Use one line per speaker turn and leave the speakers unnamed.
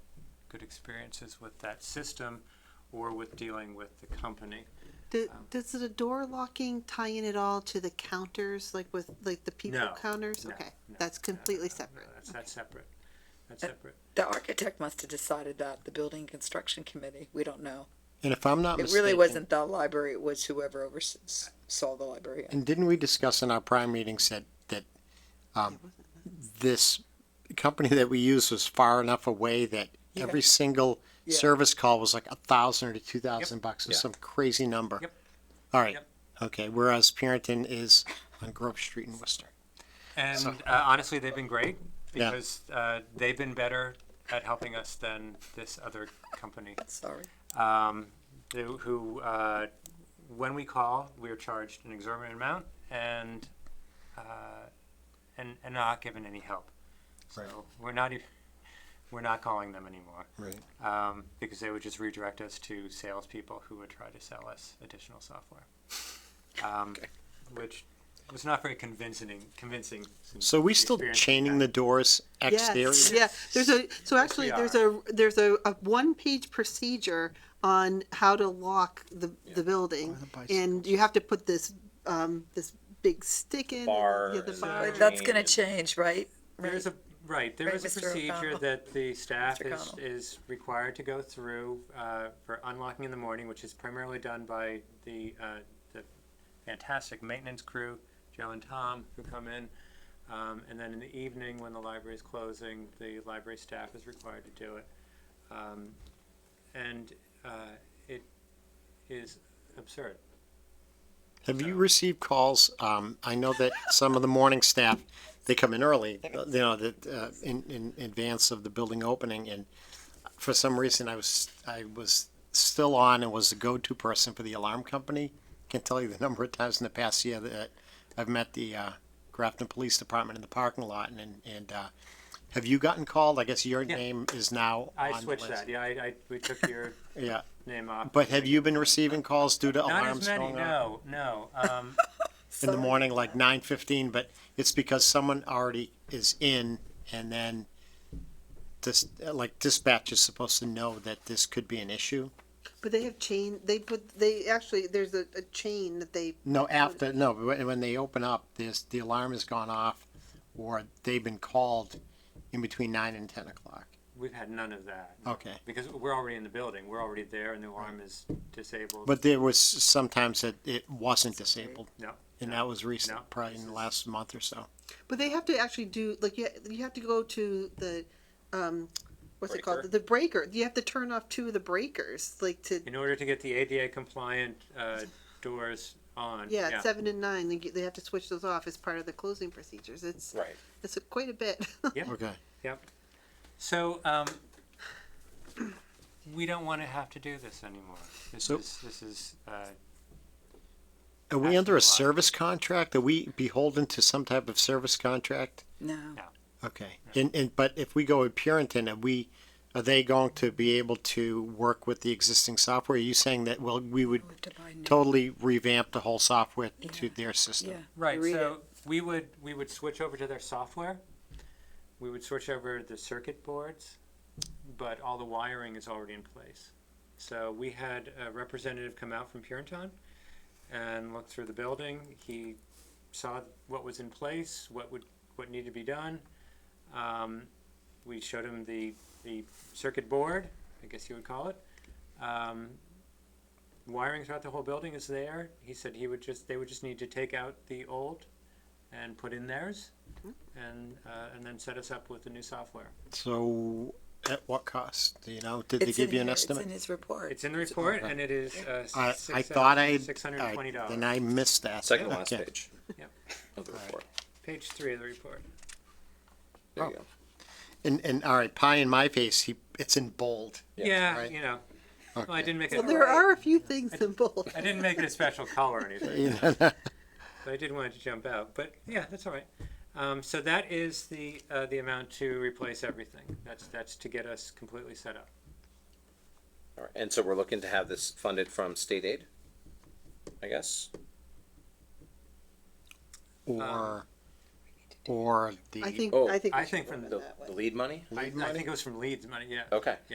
experiences with that system or with dealing with the company.
Do, does the door locking tie in at all to the counters, like with like the people
No,
counters?
no,
okay,
no,
that's
no, no,
completely
no, no,
separate.
That's, that's separate. That's separate.
The architect must have decided that, the building construction committee, we don't know.
And if I'm not
It
mistaken,
really wasn't the library, it was whoever oversaw the library.
And didn't we discuss in our prior meeting said that um, this company that we used was far enough away that
Yeah.
every single
Yeah.
service call was like a thousand or two thousand bucks or
Yeah.
some crazy number.
Yep.
All right.
Yep.
Okay. Whereas Parenton is on Grove Street in Worcester.
And
So-
uh, honestly, they've been great
Yeah.
because uh, they've been better at helping us than this other company.
Sorry.
um, who, who uh, when we call, we are charged an exorbitant amount and uh, and and not given any help. So
Right.
we're not e- we're not calling them anymore
Right.
um, because they would just redirect us to salespeople who would try to sell us additional software, um, which was not very convincing. Convincing. since
So we
the
still
experience
chaining the
that- doors
doors exterior.
Yes, yeah. There's a so actually
we
there's a there's a, a one page procedure on how to lock the the building, and you have to put this um, this big stick in and
Bar
yeah, the
and-
bar.
But
That's gonna change, right?
There is a, right, there
Right,
is a
Mr.
procedure
O'Connell.
that the staff
Mr.
is,
O'Connell.
is required to go through, uh, for unlocking in the morning, which is primarily done by the, uh, the fantastic maintenance crew, Joe and Tom, who come in. Um, and then in the evening, when the library is closing, the library staff is required to do it. Um, and, uh, it is absurd.
Have you received calls? Um, I know that some of the morning staff, they come in early, you know, that, uh, in, in advance of the building opening and for some reason I was, I was still on and was the go-to person for the alarm company. Can tell you the number of times in the past year that uh, I've met the, uh, Grafton Police Department in the parking lot and- and, and, uh, have you gotten called? I guess your
Yeah.
name is now
I
on the
switched
list.
that, yeah, I, I, we took your
Yeah,
name off.
but have you been receiving calls due to
Not as
alarms
many,
going off?
no, no, um,
in the morning, like nine fifteen, but it's because someone already is in, and then this, like dispatch is supposed to know that this could be an issue.
But they have chain. They put they actually there's a, a chain that they
No, after no, but when, when they open up, there's the alarm has gone off, or they've been called in between nine and ten o'clock.
We've had none of that.
Okay,
Because we're already in the building, we're already there and the alarm is disabled.
but there was sometimes that it wasn't disabled,
No,
and that was recent,
No.
probably in the last month or so.
But they have to actually do like you, you have to go to the um what's it
Breaker.
called the breaker. You have to turn off two of the breakers like to
in order to get the ADA compliant, uh, doors on.
yeah, seven and nine. They, get- they have to switch those off as part of the closing procedures. It's
Right.
it's quite a bit.
Okay,
Yep. So, um, we don't wanna have to do this anymore. This
So-
is, this is, uh,
are
That's
we under
a lot.
a service contract? Are we beholden to some type of service contract?
No.
Okay, and, and, but if we go with Purinton, are we, are they going to be able to work with the existing software? Are you saying that, well, we would
We have to buy new-
totally revamp the whole software to their
Yeah.
system?
right,
read
so we would, we would switch over to their software. We would switch over the circuit boards, but all the wiring is already in place. So we had a representative come out from Purinton and look through the building. He saw what was in place, what would what needed to be done. Um, we showed him the the circuit board, I guess you would call it. Um, wiring throughout the whole building is there. He said he would just they would just need to take out the old and put in theirs, and uh, and then set us up with the new software.
So at what cost, Do you know, did they
It's in
give you
here,
an
It's in
estimate?
his report.
It's in the report, and it is uh,
I, I thought uh, I,
six hundred
I-
and twenty dollars.
then I missed that.
Second to last
Okay.
page.
Yep.
Of the report.
Page three of the report.
There you go.
And, and, all right, pie in my face, he, it's in bold.
Yeah,
Right.
you know. Well, I
Okay.
didn't make
well,
it.
there are a few things in both.
I didn't make it a special color or anything. But I did want it to jump out. But yeah, that's all right. Um, so that is the uh, the amount to replace everything. That's that's to get us completely set up.
All right. And so we're looking to have this funded from state aid, I guess.
Or, or the.
I think
Oh,
I think we
Um, I
should
think
work
from
on
The,
that one.
the lead money?
I, I think it was from Leeds money. Yeah.
Okay.